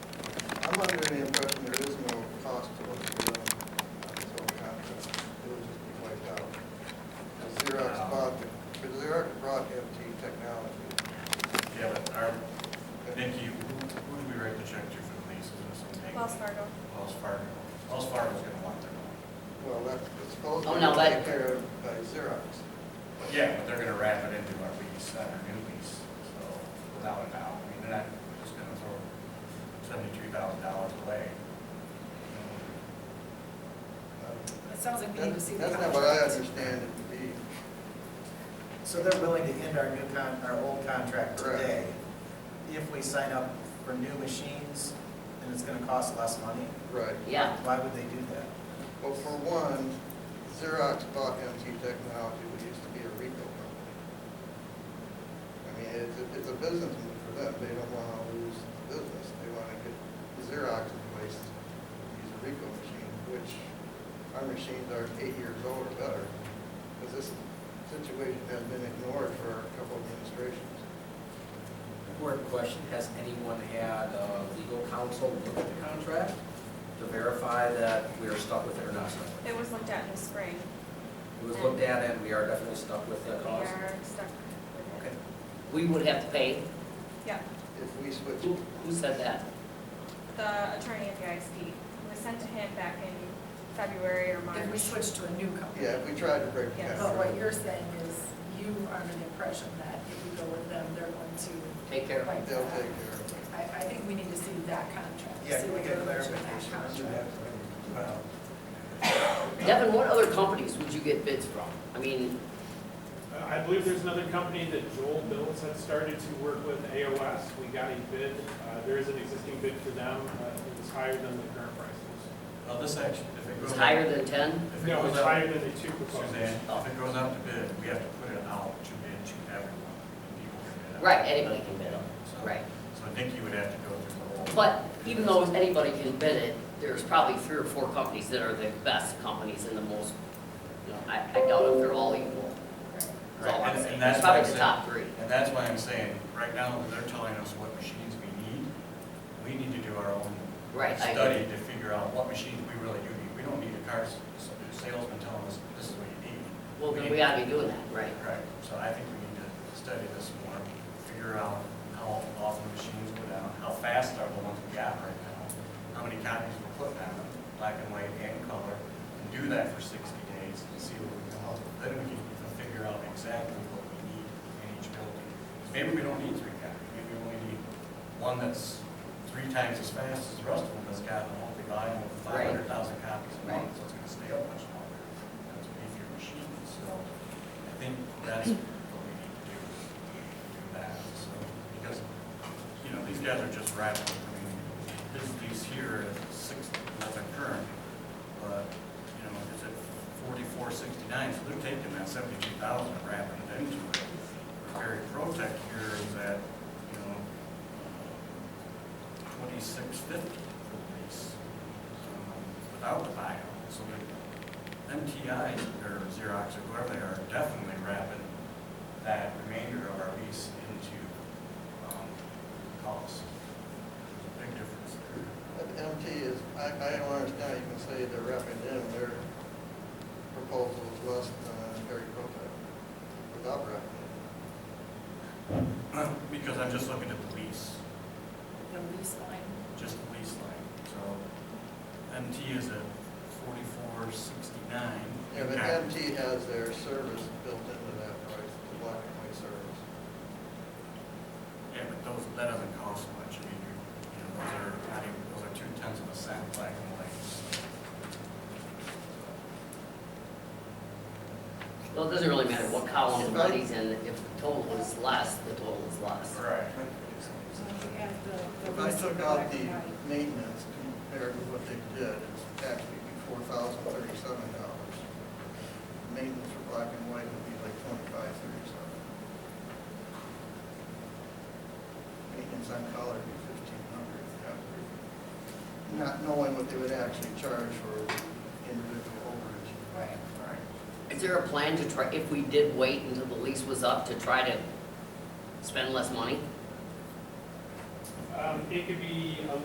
I'm under the impression there is no cost to us to run this whole contract. It would just be wiped out. The Xerox bought, the the Xerox brought MT Technology. Yeah, but our, Nikki, who who do we write the check to for the lease? Is it some Wells bank? Fargo. Wells Fargo. Wells Fargo's gonna want their money. Well, that's Oh, supposedly no, but- taken care of by Xerox. But yeah, but they're gonna wrap it into our lease, not our new lease, so without a doubt. I mean, they're not just gonna throw seventy-three thousand dollars away. Um, It sounds like we need to That's see the that's not contract. what I understand it to be. So they're willing to end our new con, our old contract Correct. today. If we sign up for new machines, then it's gonna cost less money. Right. Yeah, Why would they do that? Well, for one, Xerox bought MT Technology, which used to be a Rico company. I mean, it's, a- it's a business move for them, they don't want to lose the business, they want to get Xerox in place to use a Rico machine, which our machines are eight years old or better, because this situation has been ignored for a couple of administrations. Important question, has anyone had uh, legal counsel look at the contract to verify that we are stuck with it or not stuck with it? It was looked at in the spring. It was looked at and we are definitely stuck with We the are cost. stuck with it. Okay. we would have to pay. Yeah, If we switch, Who, who said that? the attorney at the ISD, it was sent to him back in February or March. If we switch to a new company. yeah, if we tried to break Yeah. that. Oh, But what you're saying is you are under the impression that if we go with them, they're going to. Take care of it. wipe They'll that. take care of it. I, I think we need to see that contract. Yeah, see can we what get they're gonna do in that clarification on contract. that? Uh, Devin, what other companies would you get bids from? I mean, Uh, I believe there's another company that Joel Bills had started to work with, AOS. We got a bid. Uh, There is an existing bid for them. Uh, It was higher than the current price was. Well, this actually, if it goes. it's up- higher than ten? If it No, goes it's up- higher than the two Suzanne, proposals. if it goes up to bid, we have to put it out to bid to everyone. and people can bid on it. Right, anybody can bid on So- Right. So Nikki would have to go through the whole. But even though anybody can bid it, there's probably three or four companies that are the best companies and the most, you know, I, I doubt if they're all equal. That's all Right, I'm and- and saying. that's It's probably what I'm the top three. And that's why I'm saying, right now, they're telling us what machines we need. We need to do our own Right, I study to figure out what machines we really do need. We don't need a car s- salesman telling us, this is what you need. Well, then need- we gotta be doing that, right? Right, so I think we need to study this more, figure out how often the machines go down, how fast are the ones we got right now, how many copies we're putting on them, black and white and color, and do that for sixty days and see what we can help. Then we can figure out exactly what we need in each building. Maybe we don't need three copies, maybe we only need one that's three times as fast as the rest of them that's got a healthy volume of Right. five hundred thousand copies a month, Right. so it's gonna stay up much longer. That's what if your machine, so. I think that's what we need to do, do that, so, because, you know, these guys are just rattling. I mean, this lease here is six, nothing current, but, you know, it's at forty-four sixty-nine, so they're taking that seventy-two thousand and wrapping it into it. Very Protect here is at, you know, twenty-six fifty for the lease, um, without the buyout, so they're MTI or Xerox or whoever they are definitely wrapping that remainder of our lease into um, cost. There's a Big difference there. But MT is, I, I don't understand, you can say they're wrapping in, their proposal is less than Harry Potter without wrapping in. Because I'm just looking at the lease, The lease line. just the lease line. So MT is at forty-four sixty-nine. Yeah, but MT has their service built into that price, the black and white service. Yeah, but those, that doesn't cost much. I mean, you're- you know, those are, not even- those are two tenths of a cent, black and white. Well, it doesn't really matter what column the money's in, if the total is less, the total is less. Right. So we have the- the If I lease took for out black the and white. maintenance compared to what they did, it's actually four thousand thirty-seven dollars. Maintenance for black and white would be like twenty-five thirty-seven. Maintenance on color would be fifteen hundred. Not knowing what they would actually charge for individual overage. Right. Is there a plan to try, if we did wait until the lease was up, to try to spend less money? Um, It could be a